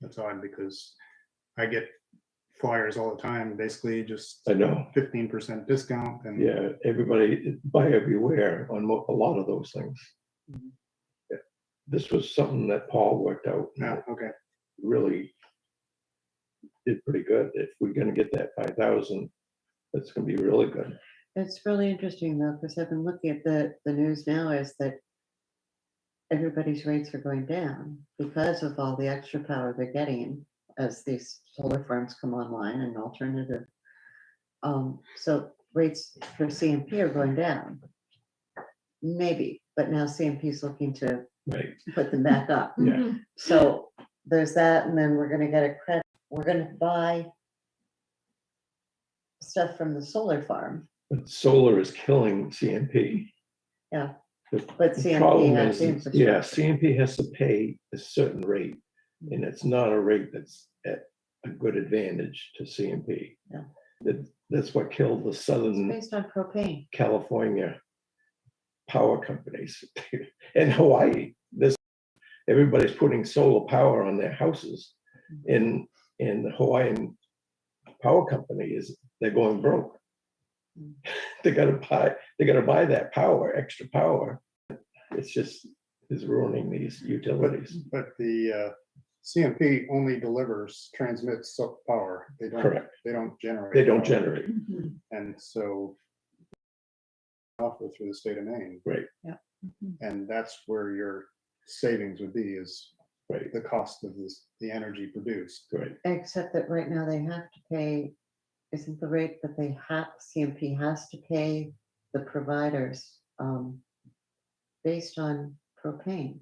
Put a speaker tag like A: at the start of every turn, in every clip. A: the time because I get flyers all the time, basically just
B: I know,
A: fifteen percent discount and
B: yeah, everybody buy everywhere on mo- a lot of those things.
C: Mm-hmm.
A: Mhm.
B: Yeah. This was something that Paul worked out, and
A: No, okay,
B: really did pretty good. If we're gonna get that five thousand, that's gonna be really good.
C: It's really interesting though, because I've been looking at the, the news now is that everybody's rates are going down because of all the extra power they're getting as these solar farms come online and alternative. Um, so rates for CMP are going down. Maybe, but now CMP's looking to
B: Right.
C: put them back up.
B: Yeah.
C: So there's that, and then we're gonna get a credit, we're gonna buy stuff from the solar farm.
B: But solar is killing CMP.
C: Yeah.
B: The
C: But
B: the
C: CMP
B: problem
C: has the
B: is- Yeah,
C: infrastructure.
B: CMP has to pay a certain rate,
C: Mm-hmm.
B: and it's not a rate that's at a good advantage to CMP.
C: Yeah.
B: That, that's what killed the
C: It's
B: Southern
C: based on propane.
B: California power companies and Hawaii. This, everybody's putting solar power on their houses and, and the Hawaiian power company is, they're going broke.
C: Mm.
B: They gotta buy, they gotta buy that power, extra power. It's just, is ruining these utilities.
A: but the uh, CMP only delivers, transmits so- power. They don't,
B: Correct.
A: they don't generate.
B: They don't
A: power.
B: generate.
A: And so offer through the state of Maine. Mm-hmm.
B: Right.
C: Yeah.
A: And that's where your savings would be is
B: Right.
A: the cost of this, the energy produced.
B: Right.
C: Except that right now they have to pay, isn't the rate that they have, CMP has to pay the providers, um, based on propane,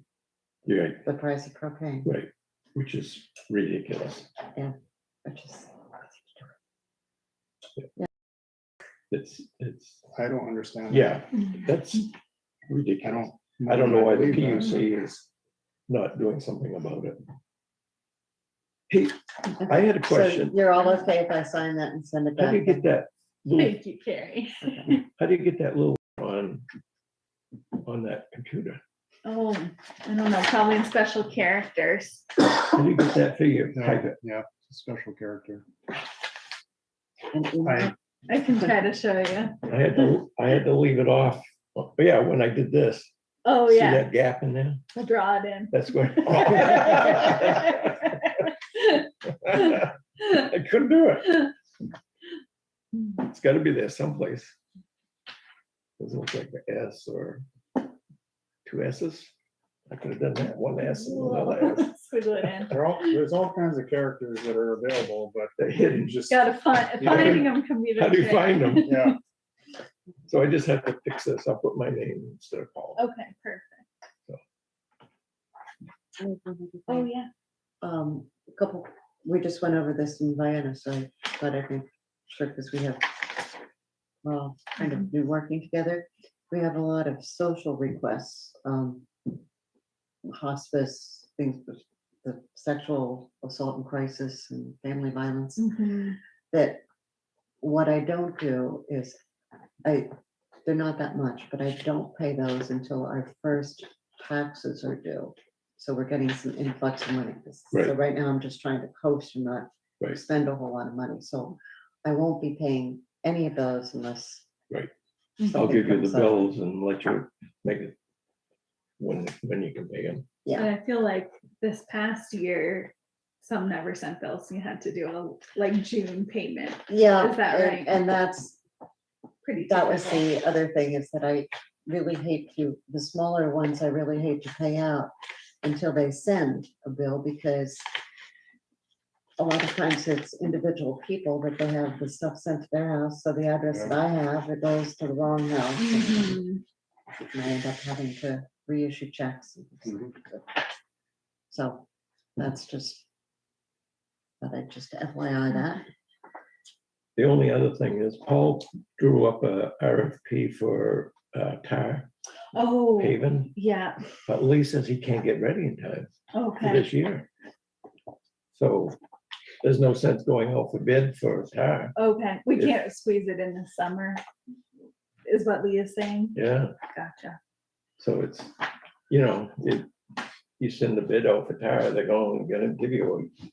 B: Yeah,
C: the price of propane,
B: right, which is ridiculous.
C: which is,
B: It's, it's,
A: I don't understand. that.
B: yeah,
D: Mm-hmm.
B: that's
A: I
B: ridiculous.
A: don't.
B: I don't know why the
A: believe that.
B: PUC is not doing something about it. Hey, I had a
C: so
B: question.
C: you're all okay if I sign that and send it
B: How
C: back?
B: do you get that, little?
D: Thank you, Carrie.
B: how do you get that little on, on that computer?
D: Oh, I don't know, probably in special characters.
B: How do you get that figure?
A: No,
B: Type it.
A: Yeah, it's a special character.
C: An email?
A: I,
D: I can try to show you.
B: I had to, I had to leave it off. Oh, Yeah, when I did this.
D: Oh,
B: See
D: yeah,
B: that gap in there?
D: I'll draw it in.
B: That's where. I couldn't do it. It's gotta be there someplace. Doesn't look like an S or two S's. I could have done that, one S and another S.
D: Squiggle it in.
A: there are, all- there's all kinds of characters that are available, but
B: They're hidden.
A: just,
D: Gotta find,
A: Yeah.
D: finding them can be the
B: How do you
D: trick.
B: find them?
A: yeah,
B: So I just have to fix this. I'll put my name instead of Paul.
D: Okay, perfect. Oh, yeah.
C: um, a couple, we just went over this in Vienna, so I thought I could, sure, because we have, well, kind of been working together. We have a lot of social requests, um, hospice, things, with the sexual assault and crisis and family violence
D: Mm-hmm.
C: that what I don't do is, I, they're not that much, but I don't pay those until our first taxes are due. So we're getting some influx of money. So
B: Right.
C: right now I'm just trying to coast and not
B: Right.
C: spend a whole lot of money. So I won't be paying any of those unless.
B: Right. I'll
C: something
B: give you
C: comes
B: the
C: up.
B: bills and let you make it when, when you can pay them.
C: Yeah.
D: But I feel like this past year, some never sent bills, you had to do a, like, June payment,
C: Yeah.
D: Is that
C: and-
D: right?
C: And that's,
D: pretty.
C: That was
D: typical.
C: the other thing is that I really hate to, the smaller ones, I really hate to pay out until they send a bill because a lot of times it's individual people that they have the stuff sent to their house, so the address that I have, it goes to the wrong house. and
D: Mhm.
C: I end up having to reissue checks. and things
A: Mm-hmm.
C: like that. So that's just, but I just FYI that.
B: The only other thing is Paul drew up a RFP for uh, tar
D: Oh,
B: paving,
D: yeah, Oh,
B: but Lee says he can't get ready in time. for
D: okay.
B: this year. So there's no sense going out for bid for a tire.
D: Okay, we
B: If-
D: can't squeeze it in the summer, is what Leah's saying.
B: Yeah,
D: Gotcha.
B: so it's, you know, if you send the bid out for tire, they're going, gonna give you